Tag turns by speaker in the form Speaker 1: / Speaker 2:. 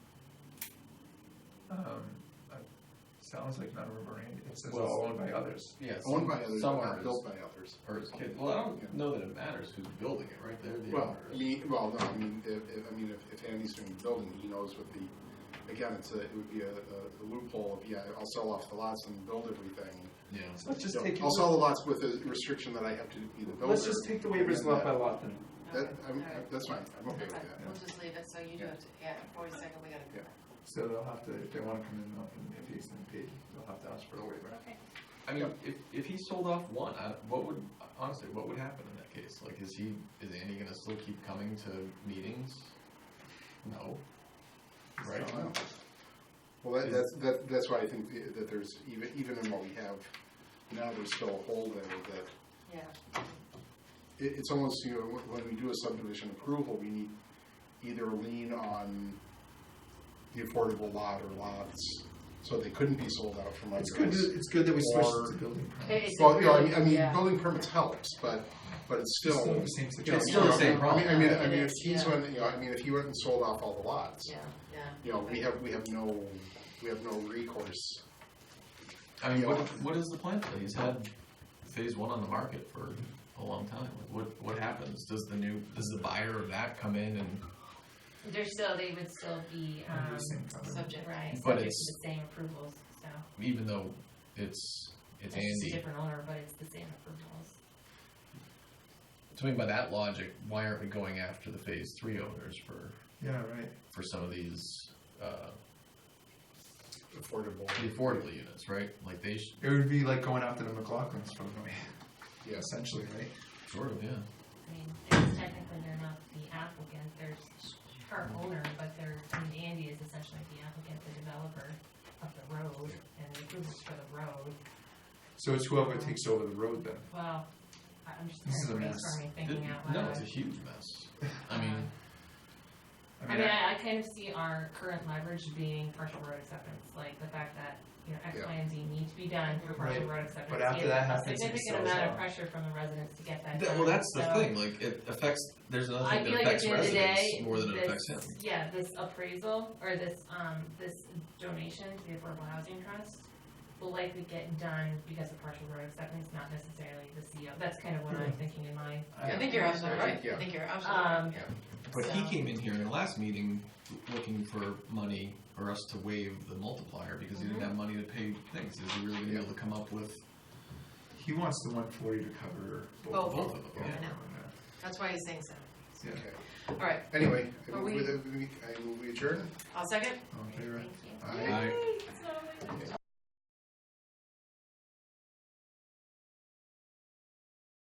Speaker 1: Um, uh, sounds like not remembering, it says it's
Speaker 2: Well-
Speaker 1: owned by others.
Speaker 2: Yeah,
Speaker 3: Owned by others, but
Speaker 2: someone
Speaker 3: not built by others.
Speaker 2: Or his kids. Well, I
Speaker 3: Yeah.
Speaker 2: don't know that it matters who's building it, right? They're the
Speaker 3: Well,
Speaker 2: owner.
Speaker 3: I mean, well, no, I mean, if, if, I mean, if, if Andy's doing the building, he knows what the, again, it's a, it would be a, a loophole of, yeah, I'll sell off the lots and build everything.
Speaker 2: Yeah.
Speaker 1: So Let's just
Speaker 3: Yeah,
Speaker 1: take,
Speaker 3: I'll sell the lots with the restriction that I have to be the builder.
Speaker 1: let's just take the waivers
Speaker 3: And
Speaker 1: lot by
Speaker 3: that-
Speaker 1: lot then.
Speaker 3: That,
Speaker 4: Okay,
Speaker 3: I'm,
Speaker 4: all right.
Speaker 3: that's fine, I'm okay with
Speaker 4: Okay,
Speaker 3: that.
Speaker 4: We'll just leave it, so you do have to, yeah, forty-second, we gotta.
Speaker 3: Yeah.
Speaker 1: So they'll have to, if they wanna come in, and if he's in paid, they'll have to ask for a waiver.
Speaker 4: Okay.
Speaker 2: I mean, if, if he sold off one, I, what would, honestly, what would happen in that case? Like, is he, is Andy gonna still keep coming to meetings? No. Right?
Speaker 3: So, I don't know. Well, that, that's, that, that's why I think the- that there's, even, even in what we have now, there's still a hole there that,
Speaker 4: Yeah.
Speaker 3: it, it's almost, you know, when- when we do a subdivision approval, we need either a lien on the affordable lot or lots, so they couldn't be sold out from under us.
Speaker 1: It's good, that- it's good that we switched
Speaker 3: Or-
Speaker 1: to building permits.
Speaker 4: Hey, it's a
Speaker 3: Well, you know, I mean,
Speaker 4: really-
Speaker 3: I mean,
Speaker 4: yeah.
Speaker 3: building permits helps, but, but it's still.
Speaker 1: Still the same
Speaker 3: you know,
Speaker 1: situation.
Speaker 2: still the same
Speaker 3: I mean,
Speaker 2: problem.
Speaker 3: I mean, I
Speaker 4: It
Speaker 3: mean, if
Speaker 4: is,
Speaker 3: he's
Speaker 4: yeah.
Speaker 3: went, you know, I mean, if he went and sold off all the lots,
Speaker 4: Yeah, yeah.
Speaker 3: you know, we have, we have no, we have no recourse.
Speaker 2: I mean, what, what is the plan for that? He's had phase one on the market for a long time. Like, what, what happens? Does the new, does the buyer of that come in and,
Speaker 5: They're still, they would still be,
Speaker 1: Under
Speaker 5: um,
Speaker 1: the same covenant.
Speaker 5: subject, right,
Speaker 2: But
Speaker 5: subject to
Speaker 2: it's-
Speaker 5: the same approvals, so.
Speaker 2: even though it's, it's Andy?
Speaker 5: just a different owner, but it's the same approvals.
Speaker 2: So I mean, by that logic, why aren't we going after the phase three owners for,
Speaker 1: Yeah, right.
Speaker 2: for some of these, uh,
Speaker 3: Affordable.
Speaker 2: the affordable units, right? Like they should,
Speaker 1: It would be like going after the McLaughlins from,
Speaker 3: Yeah.
Speaker 1: essentially, right?
Speaker 2: sort of, yeah.
Speaker 5: I mean, it's technically they're not the applicant, they're s- her owner, but they're, I mean, Andy is essentially the applicant, the developer of the road, and the approvals for the road.
Speaker 1: So it's whoever takes over the road then.
Speaker 5: Well, I- I'm just
Speaker 1: This is a mess.
Speaker 5: brainstorming, thinking out
Speaker 2: It- No,
Speaker 5: loud.
Speaker 2: it's a huge mess. I mean,
Speaker 5: Um, I mean, I, I kind of see our current leverage being partial road acceptance, like the fact that, you know, X,
Speaker 3: Yeah.
Speaker 5: Y, and Z need to be done for partial
Speaker 1: Right.
Speaker 5: road acceptance.
Speaker 1: But after
Speaker 5: It's
Speaker 1: that
Speaker 5: a
Speaker 1: happens, it
Speaker 5: Significant
Speaker 1: sells
Speaker 5: amount
Speaker 1: out.
Speaker 5: of pressure from the residents to get that
Speaker 2: that-
Speaker 5: done.
Speaker 2: well, that's the
Speaker 5: so-
Speaker 2: thing, like, it affects, there's another
Speaker 5: I
Speaker 2: thing
Speaker 5: feel
Speaker 2: that
Speaker 5: like at
Speaker 2: affects
Speaker 5: the end of the
Speaker 2: residents
Speaker 5: day,
Speaker 2: more than it affects him.
Speaker 5: this, yeah, this appraisal, or this, um, this donation to the Affordable Housing Trust will likely get done because of partial road acceptance, not necessarily the CO, that's kind of what I'm thinking in my,
Speaker 4: I think you're absolutely right, I think you're absolutely right.
Speaker 5: um,
Speaker 2: But
Speaker 5: so-
Speaker 2: he came in here in the last meeting looking for money for us to waive the multiplier because he
Speaker 5: Mm-hmm.
Speaker 2: didn't have money to pay things. Is he really gonna be able to come up with
Speaker 1: He wants the one forty to cover
Speaker 4: Both.
Speaker 1: both.
Speaker 5: Oh.
Speaker 2: both of them?
Speaker 4: I know. That's why he's saying so.
Speaker 1: Yeah,
Speaker 3: Okay.
Speaker 4: All right,
Speaker 3: Anyway, I
Speaker 4: Are
Speaker 3: move
Speaker 4: we-
Speaker 3: with- we- I move we adjourn.
Speaker 4: I'll second.
Speaker 1: all in
Speaker 5: thank
Speaker 1: favor?
Speaker 5: you.
Speaker 1: Aye.